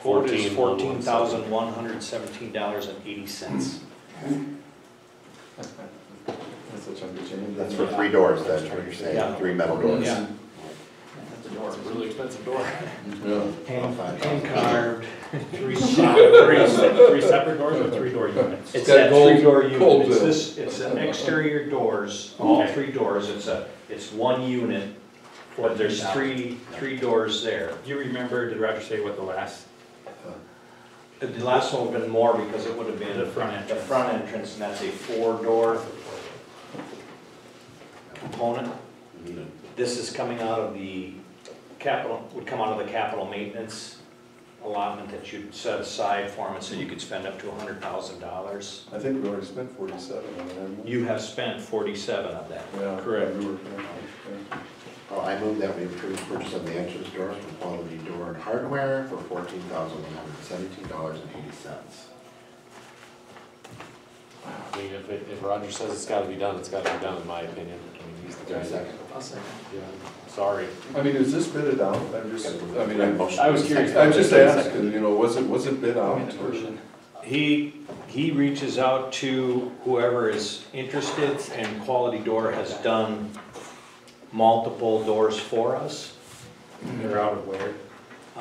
Quote is fourteen 14,117. thousand one hundred seventeen dollars and eighty cents. That's a chunk of change. That's for three doors, that's what you're saying, Yeah. three metal doors. Yeah. That's a door. It's a really expensive door. Yeah. Hand Five dollars. hand carved, three separate, three se- three separate doors or three door units? It's got that gold- three door unit, gold it's bill. this, it's an exterior doors, all Okay. three doors, it's a, it's one unit. But there's three, three doors there. Do you remember, did Roger say what the last, The last one would have been more because it would have been the front the entrance? front entrance, and that's a four-door component. This is coming out of the capital, would come out of the capital maintenance allotment that you'd set aside for them, and so you could spend up to hundred thousand dollars. I think we already spent forty-seven on it, haven't we? You have spent forty-seven of that. Yeah. Correct. we were- yeah, Oh, I move that we approve purchase of the entrance doors from Quality Door and Hardware for fourteen thousand one hundred seventeen dollars and eighty cents. I mean, if, it- if Roger says it's gotta be done, it's gotta be done, in my opinion. I mean, he's the Is there a guy. second? Yeah, Sorry. yeah. I mean, is this bid out? I'm just, I mean, I'm, I was curious. I'm just asking, you know, was it, was it bid out? or- He, he reaches out to whoever is interested, and Quality Door has done multiple doors for us. They're out of where?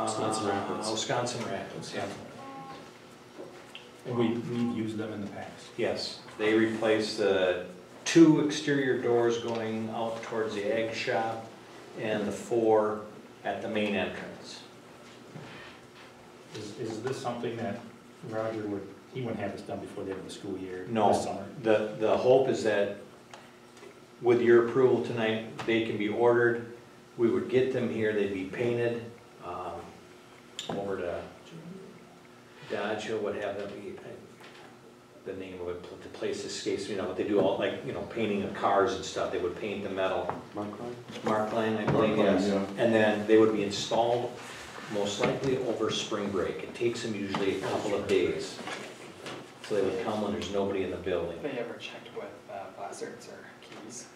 Wisconsin Uh, Rapids. Wisconsin Rapids, yeah. And we, we've used them in the past. Yes, they replaced the two exterior doors going out towards the egg shop and the four at the main entrance. Is, is this something that Roger would, he wouldn't have this done before the end of the school year? No. This summer? The, the hope is that with your approval tonight, they can be ordered. We would get them here, they'd be painted, um, over to Dodge or what have them. be- The name of it, the place escapes me now, but they do all like, you know, painting of cars and stuff. They would paint the metal Mike Ryan? Mark Lane, I believe, Mark Lane, yes. yeah. And then they would be installed most likely over spring break. It takes them usually a couple of days. So they would come when there's nobody in the building. Have they ever checked with uh, buzzards or keys?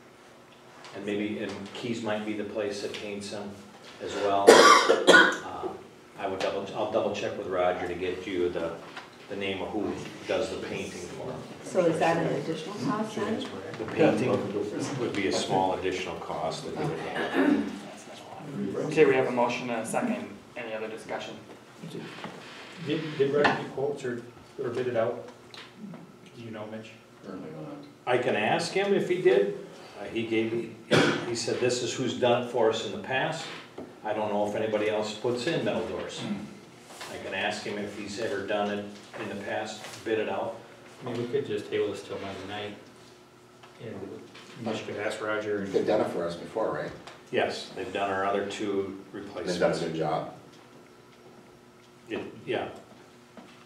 And maybe, and Keys might be the place that paints them as well. Uh, I would double, I'll double check with Roger to get you the, the name of who does the painting for them. So is that an additional cost then? The painting would be a small additional cost that we would have. That's not a lot. Okay, we have a motion and a second. Any other discussion? Did, did Roger get quotes or, or bid it out? Do you know, Mitch? Apparently not. I can ask him if he did. Uh, He gave me, he said, this is who's done it for us in the past. I don't know if anybody else puts in metal doors. I can ask him if he's ever done it in the past, bid it out. I mean, we could just table this till Monday night. And Mitch could ask Roger and. They've done it for us before, right? Yes, they've done our other two They've done a replacements. good job. It- Yeah,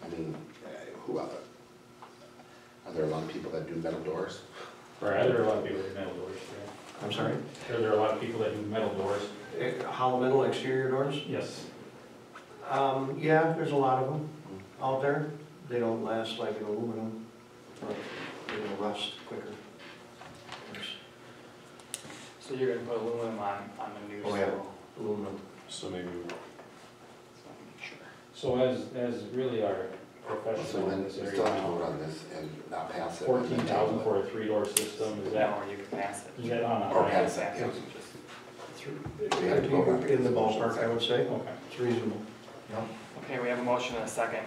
I mean, uh, who other? Are there a lot of people that do metal doors? Right, there are a lot of people that do metal doors, yeah. I'm sorry? There- There are a lot of people that do metal doors. Eh, Hollow metal exterior doors? Yes. Um, yeah, there's a lot of them out there. They don't last like an aluminum, but they'll rust quicker. There's So you're gonna put aluminum on, on the new Oh, yeah. so- Aluminum. So maybe, so I'm not sure. So as, as really our So professional in then, we this still have to vote area, on this and not pass it. and fourteen then thousand table for a three-door system, is that, Now, or you can pass it. is that on it. a? Or pass it, yeah. We have to vote on it. In the ballpark, I would say. Okay. It's reasonable. Okay, we have a motion and a second.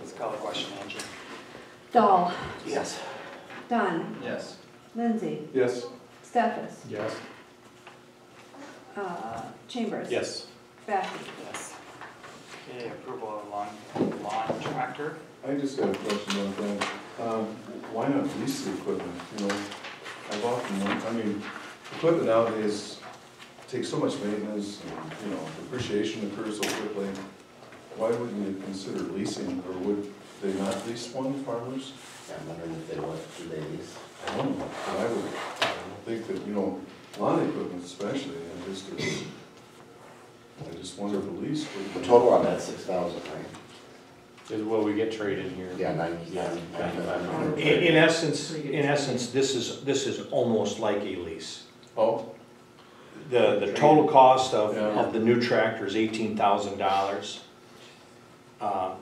Let's call the question, Angie. Dahl, Yes. Dunn, Yes. Lindsay, Yes, Stefas, Yes. uh, Chambers. yes. Baffin. Yes. Okay, approval of lawn, lawn tractor. I just got a question about that. Um, why not lease the equipment, you know? I've often, won- I mean, equipment nowadays takes so much maintenance, and, you know, depreciation occurs so quickly. Why wouldn't you consider leasing, or would they not lease one farmers? I'm wondering if they want to do they lease. I don't know, but I would think that, you know, lawn equipment especially, and just, I just wonder if a lease The would. total on that, six thousand, right? is, will we get trade-in here? Yeah, nine, Yeah, nine, nine, ninety-five nine. hundred. In, in essence, in essence, this is, this is almost like a lease. Oh, The, the total cost of, Yeah. of the new tractor is eighteen thousand dollars. Um,